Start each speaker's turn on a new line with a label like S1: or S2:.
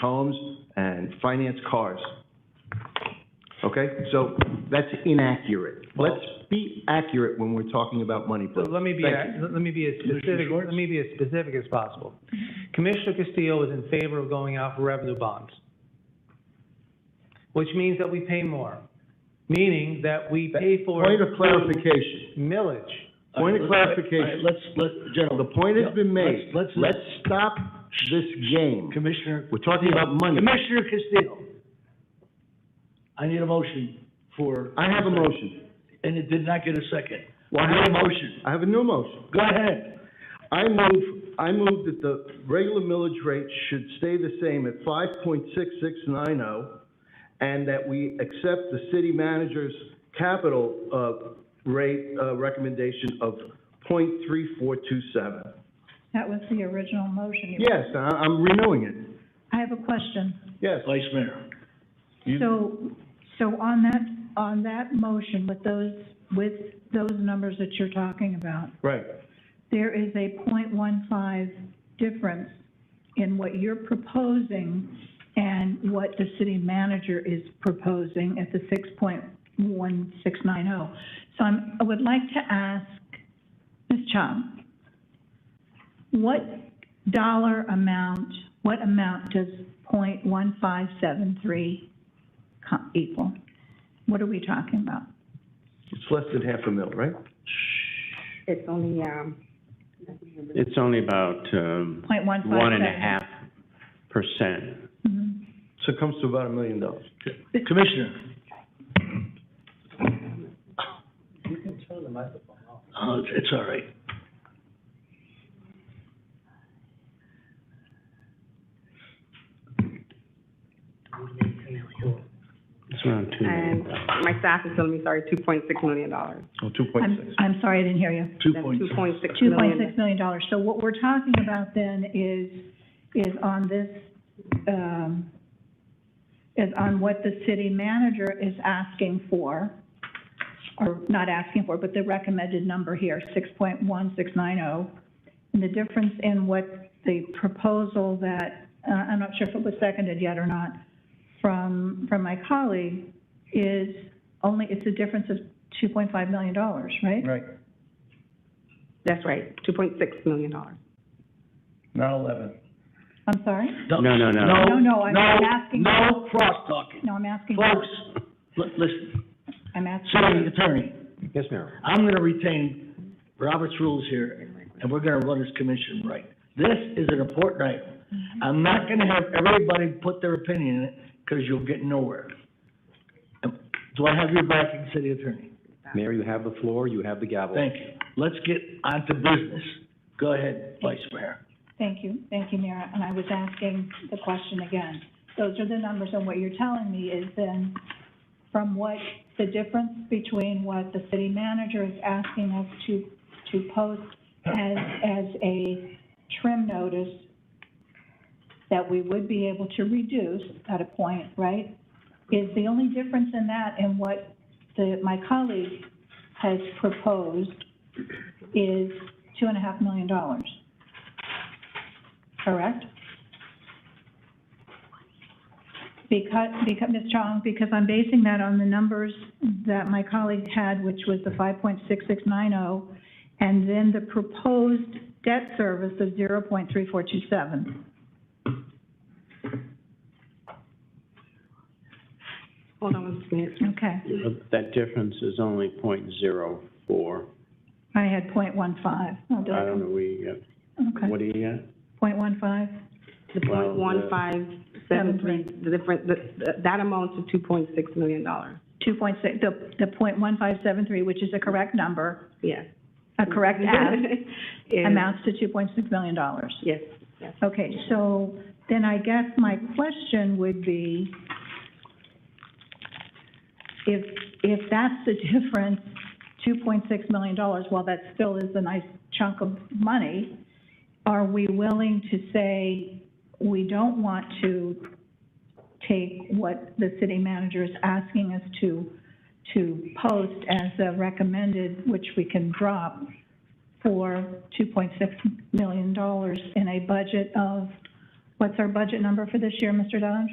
S1: homes and finance cars. Okay, so that's inaccurate. Let's be accurate when we're talking about money,
S2: So
S1: please.
S2: let me be,
S1: Thank
S2: let me be as specific, let me be as specific as possible. Commissioner Castillo is in favor of going out for revenue bonds, which means that we pay more, meaning that we pay for
S1: Point of clarification,
S2: millage.
S1: point of
S3: All right, let's-
S1: clarification.
S3: all right, Let's, let,
S1: The
S3: gentlemen,
S1: point has been made.
S3: Let's- let's-
S1: Let's stop this game.
S3: Commissioner.
S1: We're talking about money.
S3: Commissioner Castillo. I need a motion for.
S1: I have a motion.
S3: And it did not get a second.
S1: Well,
S3: I need a motion.
S1: I have a new motion.
S3: Go ahead.
S1: I move, I move that the regular millage rate should stay the same at five point six six nine oh, and that we accept the city manager's capital, uh, rate, uh, recommendation of point three four two seven.
S4: That was the original motion.
S1: Yes, I, I'm renewing it,
S4: I have a question.
S1: yes.
S3: Vice Mayor.
S1: You-
S4: So, so on that, on that motion with those, with those numbers that you're talking about,
S1: Right,
S4: there is a 0.15 difference in what you're proposing and what the city manager is proposing at the six point one six nine oh. So I'm, I would like to ask Ms. Chung, what dollar amount, what amount does 0.1573 co- equal? What are we talking about?
S1: it's less than half a mil, right?
S5: It's only, um,
S6: It's only about, um,
S4: Point one five seven?
S6: one and a half percent.
S4: Mhm.
S1: So it comes to about a million dollars.
S3: Commissioner.
S2: You can turn the microphone off.
S3: Uh, it's all right.
S6: It's around two
S5: and
S6: million.
S5: my staff is telling me, sorry, two point six million dollars.
S1: Oh, two point
S4: I'm,
S1: six.
S4: I'm sorry, I didn't hear you.
S3: Two
S5: That's
S3: point.
S5: two point six
S4: Two point
S5: million.
S4: six million dollars. So what we're talking about then is, is on this, um, is on what the city manager is asking for, or not asking for, but the recommended number here, six point one six nine oh. And the difference in what the proposal that, uh, I'm not sure if it was seconded yet or not, from, from my colleague, is only, it's a difference of two point five million dollars, right?
S3: Right,
S5: That's right, two point six million dollars.
S3: not eleven.
S4: I'm sorry?
S6: No, no, no.
S3: No,
S4: No, no, I'm
S3: no,
S4: asking-
S3: No cross-talking.
S4: No, I'm asking,
S3: Folks, li- listen,
S4: I'm asking,
S3: city attorney,
S2: Yes, Mayor.
S3: I'm gonna retain Robert's rules here, and we're gonna run this commission right. This is an important item.
S4: Mm-hmm.
S3: I'm not gonna have everybody put their opinion in it, because you'll get nowhere. Um, Do I have your backing, city attorney?
S7: Mayor, you have the floor, you have the gavel.
S3: Thank you. Let's get on to business. Go ahead, Vice Mayor.
S4: thank you, thank you, Mayor, and I was asking the question again. Those are the numbers, and what you're telling me is then, from what, the difference between what the city manager is asking us to, to post as, as a trim notice that we would be able to reduce at a point, right? Is the only difference in that and what the, my colleague has proposed is two and a half million dollars. Correct? Because, because, Ms. Chong, because I'm basing that on the numbers that my colleague had, which was the five point six six nine oh, and then the proposed debt service of zero point three four two seven.
S5: Hold on one minute.
S4: Okay,
S6: That difference is only point zero four.
S4: I had point one five.
S6: I don't know, we, uh,
S4: Okay,
S6: what do you got?
S4: point one five,
S5: The
S6: Well,
S5: point one
S6: the-
S5: five seven three, the difference, the- the- that amounts to two point six million dollars.
S4: two point six, the, the point one five seven three, which is a correct number,
S5: Yes.
S4: a correct ask,
S5: Is-
S4: amounts to two point six million dollars.
S5: Yes,
S4: Okay, so then I guess my question would be, if, if that's the difference, two point six million dollars, while that still is a nice chunk of money, are we willing to say, we don't want to take what the city manager is asking us to, to post as a recommended, which we can drop, for $2.6 million in a budget of What's our budget number for this year, Mr. Dodge?